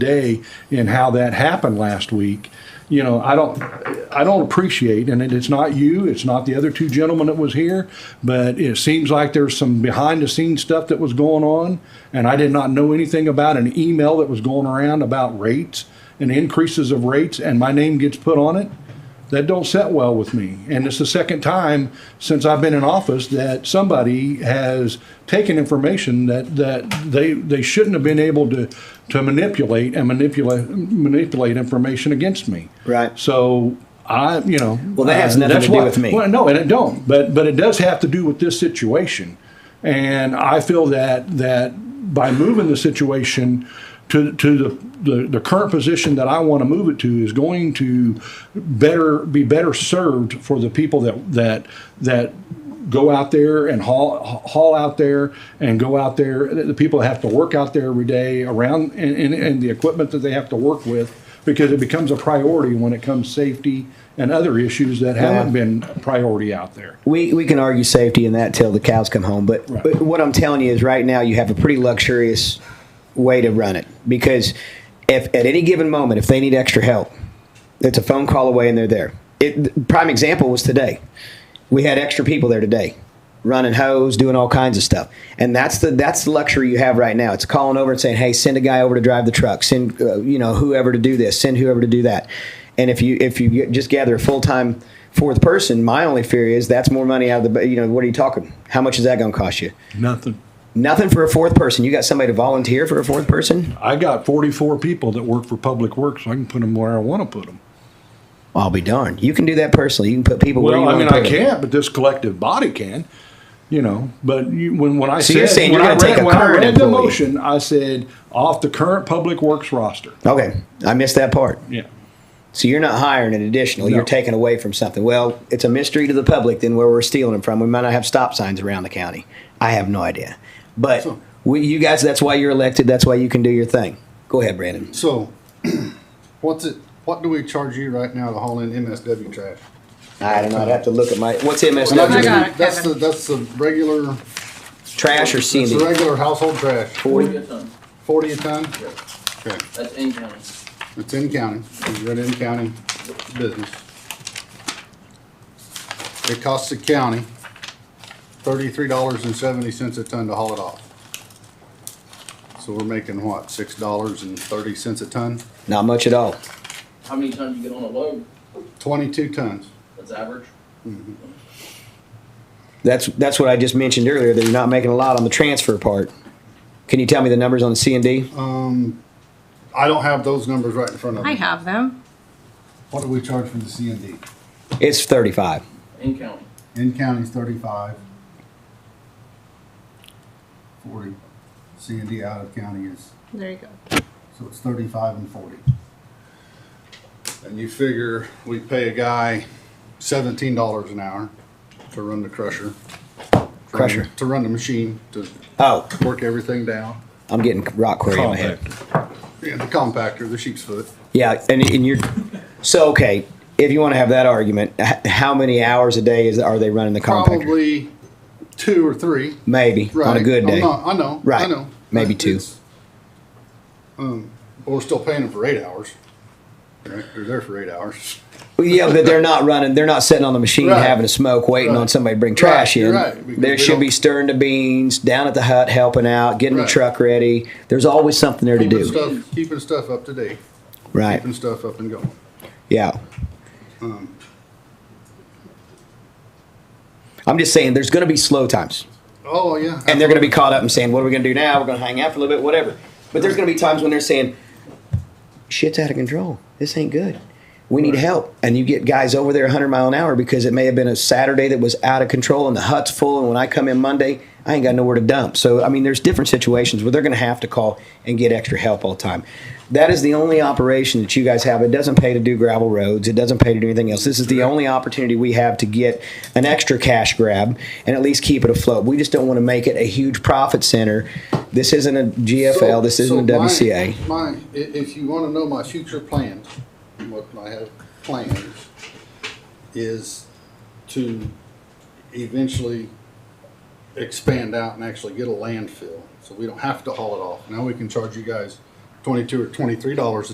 day and how that happened last week, you know, I don't, I don't appreciate, and it- it's not you, it's not the other two gentlemen that was here, but it seems like there's some behind the scenes stuff that was going on, and I did not know anything about an email that was going around about rates and increases of rates, and my name gets put on it. That don't set well with me, and it's the second time since I've been in office that somebody has taken information that that they they shouldn't have been able to to manipulate and manipulate manipulate information against me. Right. So I, you know, Well, that has nothing that's to do why- with me. Well, no, and it don't. But but it does have to do with this situation, and I feel that that by moving the situation to to the the, the current position that I want to move it to is going to better be better served for the people that that that go out there and haul haul out there and go out there the the people that have to work out there every day around and, and, and the equipment that they have to work with because it becomes a priority when it comes safety and other issues that haven't Yeah. been a priority out there we, we can argue safety and that till the cows come home. But, Right. but what I'm telling you is right now you have a pretty luxurious way to run it because if at any given moment if they need extra help, it's a phone call away and they're there. It, the prime example was today. We had extra people there today, running hose, doing all kinds of stuff, and that's the that's the luxury you have right now. It's calling over and saying, "Hey, send a guy over to drive the truck. Send uh, you know whoever to do this. Send whoever to do that." And if you if you get- just gather a full time fourth person, my only fear is that's more money out of the you know what are you talking? How much is that going to cost you? nothing Nothing for a fourth person. You got somebody to volunteer for a fourth person? i got 44 people that work for public works so i can put them where i want to put them I'll be darned. You can do that personally. You can put people. where well you i wanna mean put i them. can't but this collective body can you know but you, when, when i So said you're saying when you're i gonna take read, a when I current read the employee. motion i said off the current public works roster Okay, I missed that part. yeah So you're not hiring an additional. No. You're taking away from something. Well, it's a mystery to the public then where we're stealing them from. We might not have stop signs around the county. I have no idea. But we, you guys, that's why you're elected. That's why you can do your thing. Go ahead, Brandon. So, what's it? What do we charge you right now to haul in MSW trash? I don't know. I'd have to look at Oh my what's And that's MSW just- got it, That's the Kevin. that's the regular trash or It's Cindy? the regular household trash. Forty a ton, Forty a ton. Okay, that's in county. it's in county. It's run in county business. It costs the county thirty-three dollars and seventy cents a ton to haul it off. So we're making what six dollars and thirty cents a ton? Not much at all. How many tons you get on a load? Twenty-two tons. That's average. That's that's what I just mentioned earlier. That you're not making a lot on the transfer part. Can you tell me the numbers on the C and D? Um, I don't have those numbers right in front of me. I have them. What do we charge for the C and D? It's thirty-five. In county. In county's thirty-five. Forty. C and D out of county is, There you go. so it's thirty-five and forty. And you figure we pay a guy seventeen dollars an hour to run the crusher. Crusher. To run the machine, to Oh, work everything down. I'm getting rock quarry in my head. Yeah, the compactor, the sheep's foot. Yeah, and, and you're so okay. If you want to have that argument, h- how many hours a day is are they running the compactor? Probably two or three. maybe Right. on a good I'm day. not- I know. I Right. know. Maybe But two. it's- Um, but we're still paying them for eight hours. Right? They're there for eight hours. Well, yeah, but they're not running. They're not sitting on the machine Right. having a smoke, waiting Right. on somebody to bring trash Right, in. you're right, because There we should be don't- stirring the beans down at the hut, helping out, getting Right. the truck ready. There's always something there to Keeping do, stuff, keeping stuff up to date, right? keeping stuff up and going. Um, Yeah. I'm just saying, there's going to be slow times. Oh yeah. and they're going to be caught up and saying, "What are we going to do now? We're going to hang out for a little bit, whatever." But there's going to be times when they're saying, "Shit's out of control. This ain't good. We need help." And you get guys over there 100 mile an hour because it may have been a Saturday that was out of control and the hut's full. And when I come in Monday, I ain't got nowhere to dump. So I mean, there's different situations where they're going to have to call and get extra help all the time. That is the only operation that you guys have. It doesn't pay to do gravel roads. It doesn't pay to do anything else. This is the only opportunity we have to get an extra cash grab and at least keep it afloat. We just don't want to make it a huge profit center. This isn't a GFL. So- this so isn't my- a WCA. My, i- if you want to know my future plans, what I have planned is to eventually expand out and actually get a landfill, so we don't have to haul it off. Now we can charge you guys twenty-two or twenty-three dollars a